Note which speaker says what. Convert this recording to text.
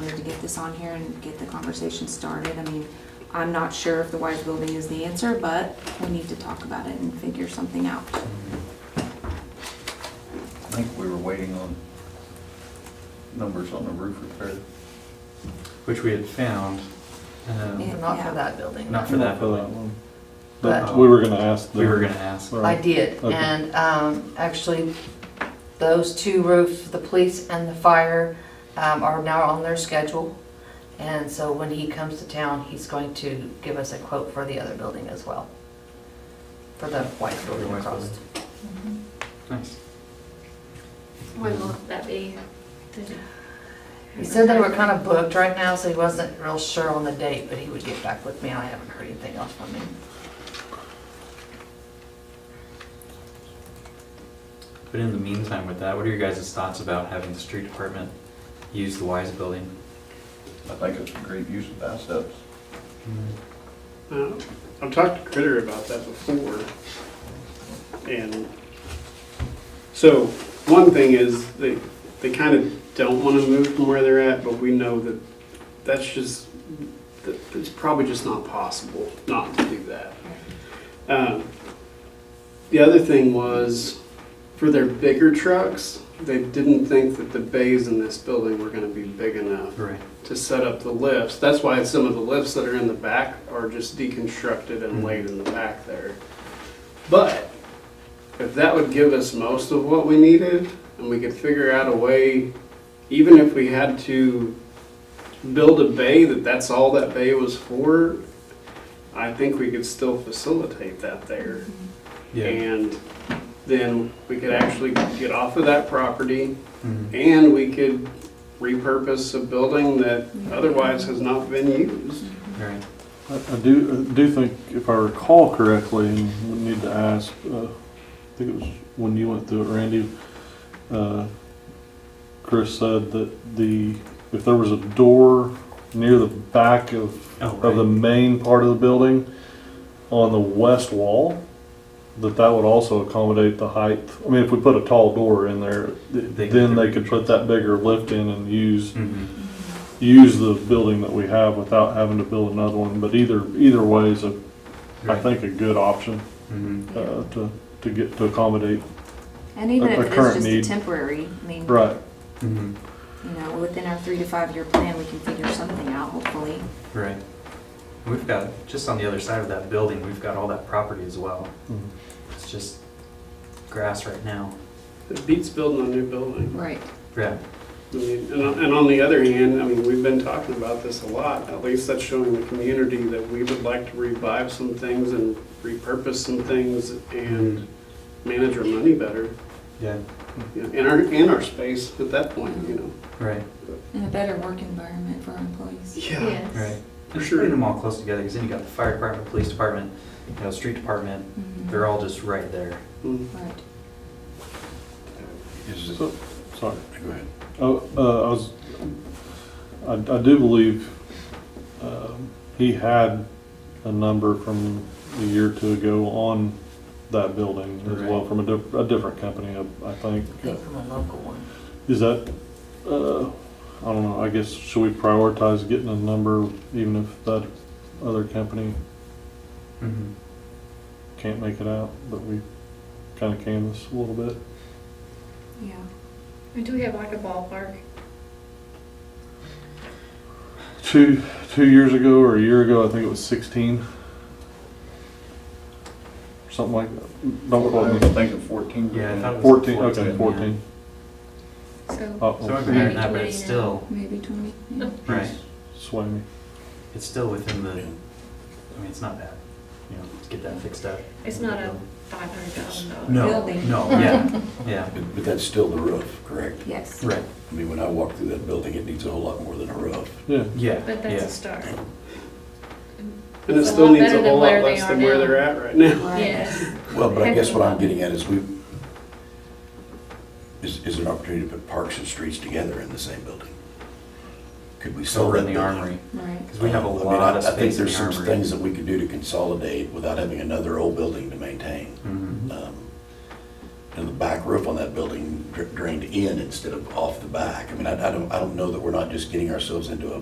Speaker 1: put this on here and get the conversation started. I mean, I'm not sure if the Wise Building is the answer, but we need to talk about it and figure something out.
Speaker 2: I think we were waiting on numbers on the roof repair.
Speaker 3: which we had found. um,
Speaker 1: Yeah.
Speaker 4: Not for that building.
Speaker 3: Not for that building.
Speaker 4: But
Speaker 5: We were gonna ask.
Speaker 3: We were gonna ask.
Speaker 4: I did,
Speaker 5: Okay.
Speaker 4: and um, actually, those two roofs, the police and the fire, um, are now on their schedule. And so when he comes to town, he's going to give us a quote for the other building as well. For the white building
Speaker 3: white
Speaker 4: across.
Speaker 3: building. Nice.
Speaker 6: When will that be?
Speaker 4: He said they were kind of booked right now, so he wasn't real sure on the date, but he would get back with me. I haven't heard anything else from him.
Speaker 3: But in the meantime with that, what are your guys' thoughts about having the street department use the Wise building?
Speaker 2: I think it's a great use of assets.
Speaker 7: Uh, I've talked to Critter about that before. And so, one thing is, they, they kind of don't want to move from where they're at, but we know that that's just, that it's probably just not possible not to do that. Um, The other thing was, for their bigger trucks, they didn't think that the bays in this building were going to be big enough
Speaker 3: Right.
Speaker 7: to set up the lifts. That's why some of the lifts that are in the back are just deconstructed and laid in the back there. But if that would give us most of what we needed, and we could figure out a way, even if we had to build a bay, that that's all that bay was for, I think we could still facilitate that there.
Speaker 3: Yeah.
Speaker 7: And then we could actually get off of that property
Speaker 3: Mhm.
Speaker 7: and we could repurpose a building that otherwise has not been used.
Speaker 3: Right.
Speaker 5: I I do, I do think, if I recall correctly, and we need to ask, uh, I think it was when you went through it, Randy, uh, Chris said that the, if there was a door near the back of,
Speaker 3: Oh,
Speaker 5: of the
Speaker 3: right.
Speaker 5: main part of the building on the west wall, that that would also accommodate the height. I mean, if we put a tall door in there,
Speaker 3: They
Speaker 5: th-
Speaker 3: could-
Speaker 5: then they could put that bigger lift in and use
Speaker 3: Mhm.
Speaker 5: use the building that we have without having to build another one, but either, either way is a, I
Speaker 3: Right.
Speaker 5: think, a good option,
Speaker 3: Mhm.
Speaker 5: uh, to, to get, to accommodate.
Speaker 1: And even
Speaker 5: But
Speaker 1: if
Speaker 5: the
Speaker 1: it
Speaker 5: current
Speaker 1: is just a
Speaker 5: need-
Speaker 1: temporary, I mean,
Speaker 5: Right,
Speaker 3: Mhm.
Speaker 1: you know, within our three to five year plan, we can figure something out, hopefully.
Speaker 3: Right. And We've got, just on the other side of that building, we've got all that property as well.
Speaker 5: Mhm.
Speaker 3: It's just grass right now.
Speaker 7: It beats building a new building.
Speaker 1: Right.
Speaker 3: Yeah.
Speaker 7: I mean, And on- and on the other hand, I mean, we've been talking about this a lot. At least that's showing the community that we would like to revive some things and repurpose some things and manage our money better,
Speaker 3: Yeah.
Speaker 7: you know, and our, and our space at that point, you know.
Speaker 3: Right.
Speaker 1: And a better work environment for our employees.
Speaker 7: Yeah,
Speaker 3: Right.
Speaker 7: For
Speaker 3: Just
Speaker 7: sure.
Speaker 3: Bring them all close together, because then you got the fire department, police department, you know, street department, they're all just right there.
Speaker 7: Mm.
Speaker 1: Mm-hmm. Right.
Speaker 2: Is
Speaker 5: so, sorry.
Speaker 2: go ahead.
Speaker 5: Oh, uh, I was, I, I do believe, um, he had a number from a year or two ago on that building as well,
Speaker 3: Right.
Speaker 5: from a di- a different company, I- I think.
Speaker 4: I think from a local one.
Speaker 5: Is that, uh, I don't know, I guess, should we prioritize getting a number even if that other company
Speaker 3: Mhm.
Speaker 5: can't make it out, but we kind of canvas a little bit?
Speaker 1: Yeah.
Speaker 6: Do we have like a ballpark?
Speaker 5: Two, two years ago or a year ago, I think it was sixteen. Something like that.
Speaker 2: I
Speaker 5: Don't quote
Speaker 2: was
Speaker 5: me.
Speaker 2: thinking fourteen.
Speaker 3: Yeah, I thought it was
Speaker 5: Fourteen, Oh, okay,
Speaker 3: 14,
Speaker 5: fourteen.
Speaker 6: So,
Speaker 5: Uh-oh.
Speaker 3: So I'm hearing that, but it's still,
Speaker 1: Maybe twenty. yeah.
Speaker 3: right,
Speaker 5: Sway me.
Speaker 3: it's still within the, I mean, it's not bad, you know, to get that fixed up.
Speaker 6: it's not a five hundred thousand dollar.
Speaker 3: No,
Speaker 1: Building.
Speaker 3: no, yeah, yeah,
Speaker 8: But but that's still the roof, correct?
Speaker 1: Yes.
Speaker 3: right,
Speaker 8: I mean, when I walk through that building, it needs a whole lot more than a roof.
Speaker 5: Yeah,
Speaker 3: yeah,
Speaker 6: But that's a
Speaker 3: yeah.
Speaker 6: start.
Speaker 7: And it
Speaker 6: It's a
Speaker 7: still
Speaker 6: lot
Speaker 7: needs
Speaker 6: better
Speaker 7: a
Speaker 6: than
Speaker 7: whole lot
Speaker 6: where they
Speaker 7: less
Speaker 6: are
Speaker 7: than where
Speaker 6: now.
Speaker 7: they're at right now.
Speaker 1: Right.
Speaker 6: Yes.
Speaker 8: Well, but I guess what I'm getting at is we, is, is an opportunity to put parks and streets together in the same building. Could we sell
Speaker 3: Over
Speaker 8: that?
Speaker 3: in the
Speaker 8: building?
Speaker 3: armory,
Speaker 1: Right.
Speaker 3: because we have a
Speaker 8: I mean,
Speaker 3: lot
Speaker 8: I-
Speaker 3: of space in the
Speaker 8: I think there's some things
Speaker 3: armory.
Speaker 8: that we could do to consolidate without having another old building to maintain.
Speaker 3: Mhm.
Speaker 8: Um, And the back roof on that building dra- drained in instead of off the back. I mean, I I don't, I don't know that we're not just getting ourselves into a